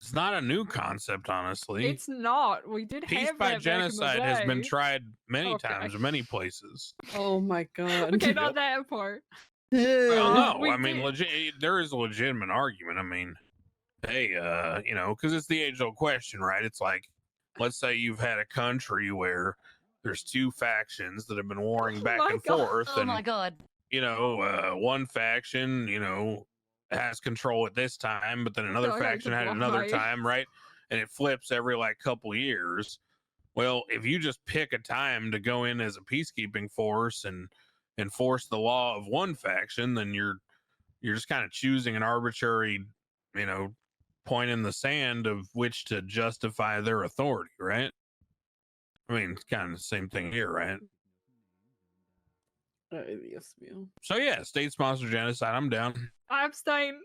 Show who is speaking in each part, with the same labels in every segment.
Speaker 1: It's not a new concept, honestly.
Speaker 2: It's not. We did
Speaker 1: Peace
Speaker 2: have
Speaker 1: by
Speaker 2: that back in the
Speaker 1: genocide has been
Speaker 2: day.
Speaker 1: tried many
Speaker 2: Okay.
Speaker 1: times in many places.
Speaker 3: Oh my god.
Speaker 2: Okay, not that part.
Speaker 1: Well,
Speaker 2: Uh,
Speaker 1: no,
Speaker 2: we
Speaker 1: I mean,
Speaker 2: did-
Speaker 1: legit, there is a legitimate argument. I mean, hey, uh, you know, because it's the age old question, right? It's like, let's say you've had a country where there's two factions that have been warring
Speaker 2: Oh
Speaker 1: back
Speaker 2: my
Speaker 1: and
Speaker 2: God.
Speaker 1: forth,
Speaker 4: Oh
Speaker 1: and
Speaker 4: my god.
Speaker 1: you know, uh, one faction, you know, has control at this time, but then another
Speaker 2: God, I
Speaker 1: faction had
Speaker 2: could
Speaker 1: another
Speaker 2: lie.
Speaker 1: time, right? And it flips every like couple years. Well, if you just pick a time to go in as a peacekeeping force and enforce the law of one faction, then you're you're just kind of choosing an arbitrary, you know, point in the sand of which to justify their authority, right? I mean, it's kind of the same thing here, right?
Speaker 3: Uh, yes, ma'am.
Speaker 1: So yeah, state sponsored genocide, I'm down.
Speaker 2: I abstain.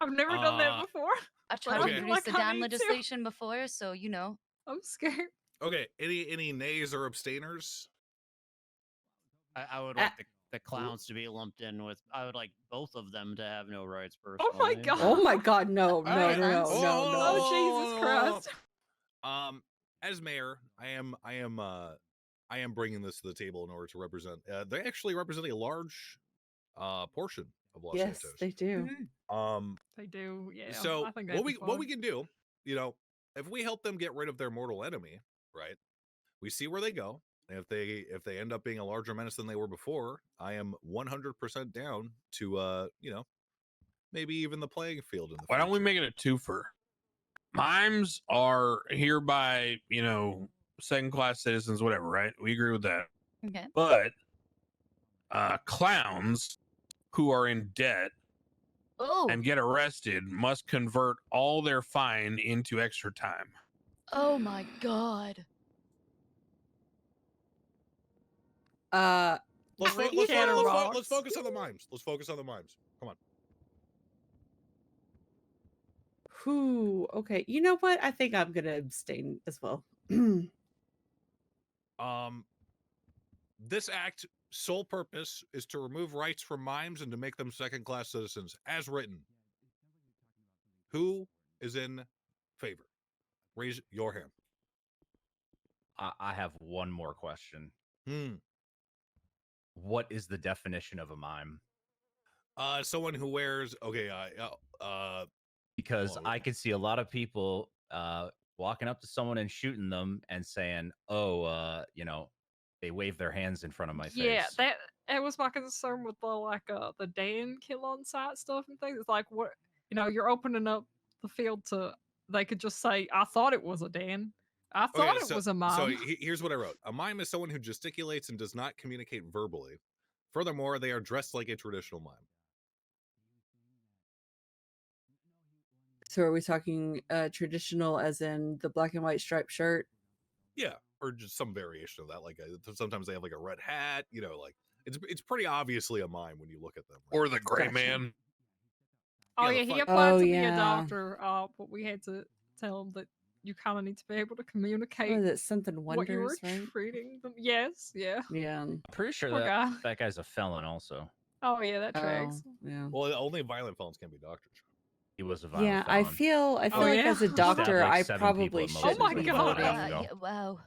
Speaker 2: I've never done
Speaker 5: Uh,
Speaker 2: that before.
Speaker 4: I've tried
Speaker 5: Okay.
Speaker 4: to
Speaker 2: Like,
Speaker 4: reduce the
Speaker 2: I
Speaker 4: damn
Speaker 2: need to.
Speaker 4: legislation before, so you know.
Speaker 2: I'm scared.
Speaker 5: Okay. Any any nays or abstainers?
Speaker 6: I, I would
Speaker 3: Uh,
Speaker 6: like the, the clowns to be lumped in with. I would like both of them to have no rights. Personally.
Speaker 2: God.
Speaker 3: Oh my god, no, no,
Speaker 5: right,
Speaker 3: no,
Speaker 5: I'm-
Speaker 3: no,
Speaker 5: Oh,
Speaker 3: no.
Speaker 2: Oh,
Speaker 5: no,
Speaker 2: Jesus
Speaker 5: no, no, no, no.
Speaker 2: Christ.
Speaker 5: Um, as mayor, I am I am uh I am bringing this to the table in order to represent. Uh, they actually represent a large uh portion of Los
Speaker 3: Yes,
Speaker 5: Santos.
Speaker 3: they
Speaker 2: Mm-hmm.
Speaker 3: do.
Speaker 4: Mhm.
Speaker 5: um,
Speaker 2: They do, yeah.
Speaker 5: so
Speaker 2: I think that'd
Speaker 5: what
Speaker 2: be
Speaker 5: we what we
Speaker 2: fun.
Speaker 5: can do, you know, if we help them get rid of their mortal enemy, right? We see where they go. and If they if they end up being a larger menace than they were before, I am 100% down to uh, you know, maybe even the playing field in the
Speaker 1: Why don't we
Speaker 5: future.
Speaker 1: make it a twofer? Mimes are hereby, you know, second class citizens, whatever, right? We agree with that.
Speaker 4: Okay.
Speaker 1: But uh clowns who are in debt
Speaker 4: Oh.
Speaker 1: and get arrested must convert all their fine into extra time.
Speaker 4: Oh my god.
Speaker 3: Uh
Speaker 5: Let's, fo-
Speaker 2: Like
Speaker 5: let's, fo-
Speaker 2: Shadow
Speaker 5: let's fo-
Speaker 2: Rocks.
Speaker 5: let's focus on the mimes. Let's focus on the mimes. Come on.
Speaker 3: who okay, you know what? I think I'm gonna abstain as well.
Speaker 5: Um, this act sole purpose is to remove rights from mimes and to make them second class citizens, as written. Who is in favor? Raise your hand.
Speaker 7: I, I have one more question.
Speaker 5: Hmm.
Speaker 7: What is the definition of a mime?
Speaker 5: Uh, someone who wears okay. Uh, uh, uh
Speaker 7: Because
Speaker 5: Oh,
Speaker 7: I
Speaker 5: okay.
Speaker 7: could see a lot of people uh, walking up to someone and shooting them and saying, "Oh, uh, you know, they wave their hands in front of my
Speaker 2: yeah,
Speaker 7: face."
Speaker 2: that it was my concern with the like uh the Dan kill on site stuff and things. It's like what you know, you're opening up the field to they could just say, I thought it was a Dan. I
Speaker 5: okay,
Speaker 2: thought it was a mom.
Speaker 5: So he- here's what I wrote: A mime is someone who gesticulates and does not communicate verbally. Furthermore, they are dressed like a traditional mime.
Speaker 3: so are we talking uh traditional as in the black and white striped shirt?
Speaker 5: Yeah, or just some variation of that. Like uh, th- sometimes they have like a red hat. You know, like it's it's pretty obviously a mime when you look at them. right?
Speaker 1: Or the gray
Speaker 3: Gotcha.
Speaker 1: man.
Speaker 2: oh
Speaker 5: yeah,
Speaker 2: yeah,
Speaker 5: the
Speaker 2: he
Speaker 5: fuck-
Speaker 2: applied
Speaker 3: Oh,
Speaker 2: to be
Speaker 3: yeah.
Speaker 2: a doctor, uh, but we had to tell him that you kinda need to be able to communicate
Speaker 3: Or is it something
Speaker 2: what you were
Speaker 3: wondrous, right?
Speaker 2: treating them. Yes, yeah.
Speaker 3: Yeah.
Speaker 7: I'm pretty sure
Speaker 2: Poor
Speaker 7: that
Speaker 2: guy.
Speaker 7: that guy's a felon. Also,
Speaker 2: Oh yeah, that tracks.
Speaker 3: Oh, yeah.
Speaker 5: well, uh, only violent felons can be doctors.
Speaker 7: he was a violent
Speaker 3: Yeah, I
Speaker 7: felon.
Speaker 3: feel I feel like
Speaker 2: Oh, yeah.
Speaker 3: as a
Speaker 2: Stabbed,
Speaker 3: doctor
Speaker 7: like,
Speaker 3: I
Speaker 7: seven people
Speaker 3: probably
Speaker 7: at most
Speaker 3: should
Speaker 2: Oh my
Speaker 3: be
Speaker 2: God.
Speaker 3: voting.
Speaker 4: Wow, yeah, wow.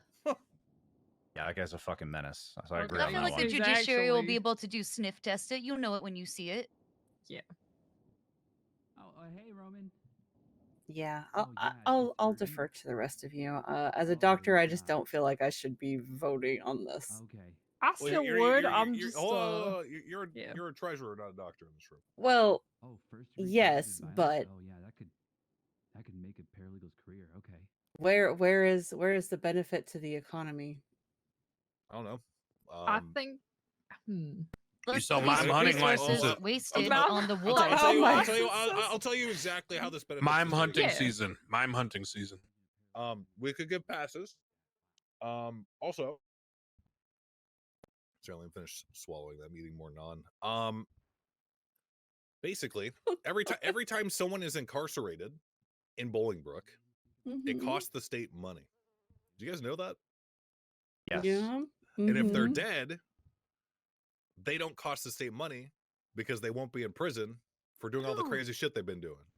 Speaker 7: Yeah, that guy's a fucking menace. So I
Speaker 2: Okay.
Speaker 7: agree
Speaker 2: Right
Speaker 4: I
Speaker 7: on
Speaker 4: feel
Speaker 7: that
Speaker 4: like the
Speaker 7: one.
Speaker 2: ju- He's
Speaker 4: judiciary will
Speaker 2: actually-
Speaker 4: be able to do sniff test it. You'll know it when you see it.
Speaker 8: Oh, uh, hey, Roman.
Speaker 3: Yeah, I'll,
Speaker 8: Oh,
Speaker 3: I-
Speaker 8: yeah, I
Speaker 3: I'll
Speaker 8: think
Speaker 3: I'll
Speaker 8: you're right.
Speaker 3: defer to the rest of you. Uh, as a
Speaker 8: Oh,
Speaker 3: doctor, I just
Speaker 8: yeah.
Speaker 3: don't feel like I should be voting on this.
Speaker 8: Okay.
Speaker 2: I
Speaker 5: Well,
Speaker 2: still
Speaker 5: you're- you're-
Speaker 2: would.
Speaker 5: you're-
Speaker 2: I'm
Speaker 5: you're- oh,
Speaker 2: just
Speaker 5: hold on,
Speaker 2: uh,
Speaker 5: hold on, you're you're a,
Speaker 2: yeah.
Speaker 5: you're a treasurer, not a doctor in this room.
Speaker 3: Well,
Speaker 8: Oh, first. degree
Speaker 3: Yes,
Speaker 8: domestic
Speaker 3: but-
Speaker 8: violence? Oh yeah, that could that could make a paralegal's career. Okay.
Speaker 3: where where is where is the benefit to the economy?
Speaker 5: I don't know. Um,
Speaker 2: I think hmm.
Speaker 4: Let's
Speaker 1: sell
Speaker 4: put
Speaker 1: my
Speaker 4: these
Speaker 1: hunting
Speaker 4: resources
Speaker 1: license.
Speaker 4: wasted
Speaker 2: Mouth-
Speaker 4: on the
Speaker 5: I'll,
Speaker 4: war.
Speaker 5: tell, I'll,
Speaker 3: Oh
Speaker 5: tell you,
Speaker 3: my
Speaker 5: I'll, tell you, I'll,
Speaker 2: goodness.
Speaker 5: I'll tell you exactly how this benefits.
Speaker 1: Mime
Speaker 5: the
Speaker 1: hunting
Speaker 5: city.
Speaker 2: Yeah.
Speaker 1: season. Mime hunting season.
Speaker 5: Um, we could give passes. Um, also, certainly I'm finished swallowing them, eating more non. Um, basically, every time every time someone is incarcerated in Bolingbrook,
Speaker 3: Mm-hmm.
Speaker 5: it costs the state money. Do you guys know that?
Speaker 7: Yes.
Speaker 3: Yeah.
Speaker 5: And if they're
Speaker 3: mhm.
Speaker 5: dead, they don't cost the state money because they won't be in prison for doing all the
Speaker 4: No.
Speaker 5: crazy shit they've been doing.